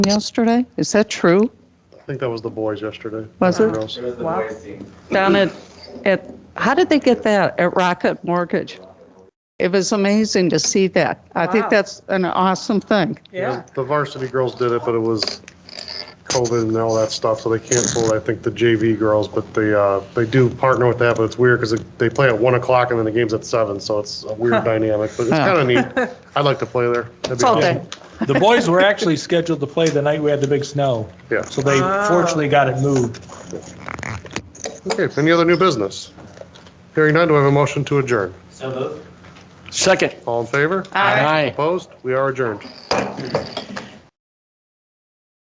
yesterday? Is that true? I think that was the boys yesterday. Was it? Girls. It was the Wow. boys team. Down at, at, how did they get that at Rocket Mortgage? It was amazing to see that. I think Wow. that's an awesome thing. Yeah, The varsity girls did it, but it was COVID and all that stuff, so they canceled, I think, the JV girls, but they, uh, they do partner with that, but it's weird because they play at one o'clock and then the game's at seven, so it's a weird dynamic, but it's Huh. kind of neat. I'd like to play there. That'd be It's all awesome. day. The boys were actually scheduled to play the night we had the big snow, Yeah. so they fortunately got it moved. Okay, any other new business? Hearing none, do I have a motion to adjourn? So moved. Second. All in favor? Aye. Opposed? We are adjourned.